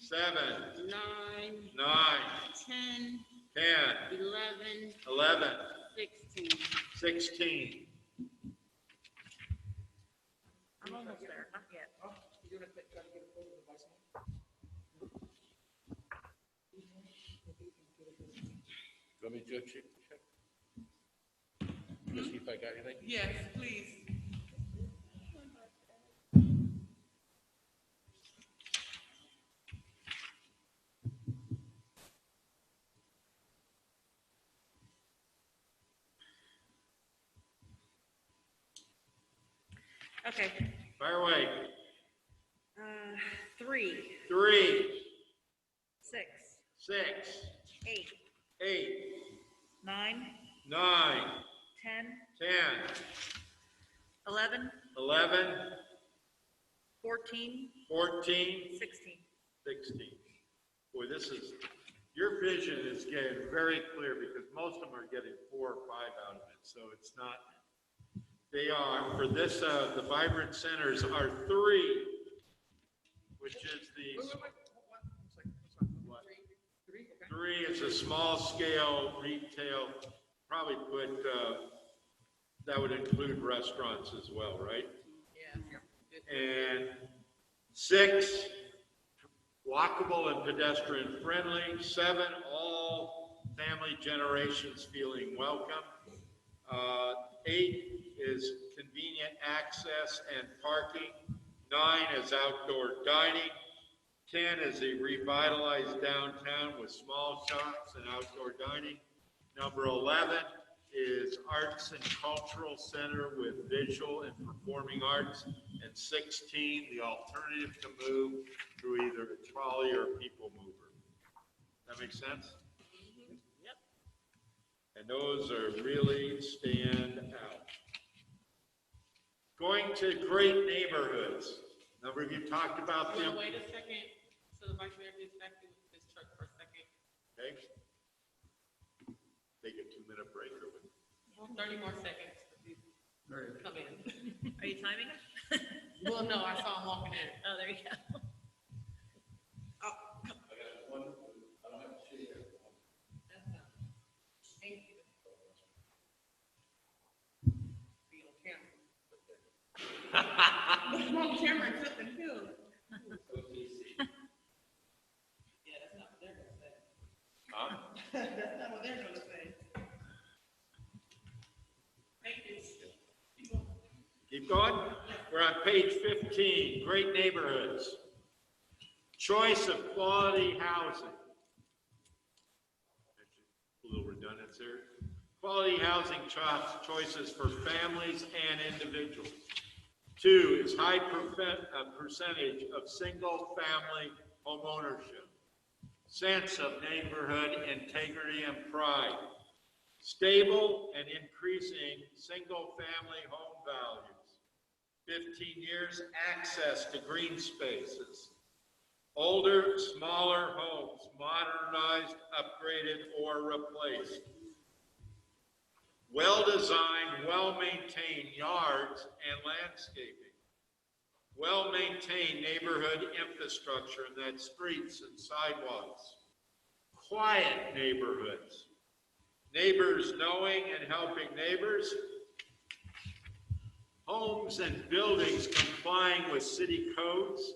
seven, nine, nine, ten, ten, eleven, eleven, sixteen. sixteen. I'm almost there, not yet. Let me do a check, check. Just See if I got anything. Yes, please. Okay, Fire away. uh, three, Three, six, six, eight, eight, nine, nine, ten, ten, eleven, eleven, fourteen, fourteen, sixteen. sixteen. Boy, this is, your vision is getting very clear because most of them are getting four or five out of it, so it's not. They are, for this, uh, the vibrant centers are three, which is the. What? Three is a small scale retail, probably put, uh, that would include restaurants as well, right? And six, walkable and pedestrian friendly. Seven, all family generations feeling welcome. Uh, Eight is convenient access and parking. Nine is outdoor dining. 10 is a revitalized downtown with small shops and outdoor dining. Number 11 is arts and cultural center with visual and performing arts. And 16, the alternative to move through either a trolley or a people mover. That make sense? Yep. And those are really stand out. Going to great neighborhoods. Number of you talked about Will them. you wait a second, so the vice mayor gets back to his truck for a second? Okay? Take a two-minute break or whatever. Thirty more seconds. Come in. Are you timing us? Well, no, I saw him walking in. Oh, there you go. Be on camera. I'm on camera and clipping too. Yeah, that's not what they're gonna say. That's not what they're gonna say. Thank you. Keep going. We're on page 15, great neighborhoods. Choice of quality housing. A little redundant there. Quality housing cho- choices for families and individuals. Two is high perfe- uh, percentage of single-family homeownership. Sense of neighborhood integrity and pride. Stable and increasing single-family home values. 15 years access to green spaces. Older, smaller homes modernized, upgraded, or replaced. Well-designed, well-maintained yards and landscaping. Well-maintained neighborhood infrastructure, and that's streets and sidewalks. Quiet neighborhoods neighbors knowing and helping neighbors, homes and buildings complying with city codes,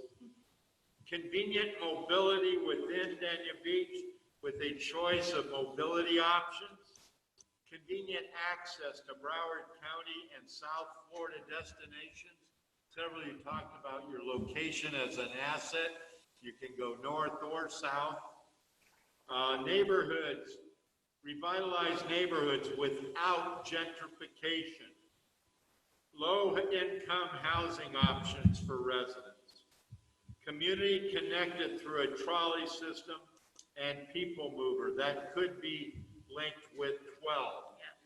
convenient mobility within Dania Beach with a choice of mobility options, convenient access to Broward County and South Florida destinations. Several of you talked about your location as an asset. You can go north or south. Uh, Neighborhoods, revitalize neighborhoods without gentrification. Low-income housing options for residents. Community connected through a trolley system and people mover. That could be linked with 12.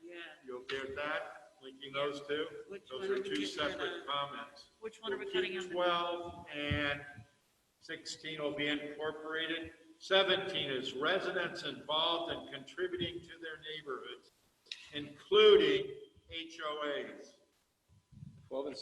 Yeah. You okay with that? Linking those two? Which Those one are are we two getting rid of? separate comments. Which one are we We'll cutting keep out? Twelve and sixteen will be incorporated. Seventeen is residents involved and contributing to their neighborhoods, including HOAs. Twelve and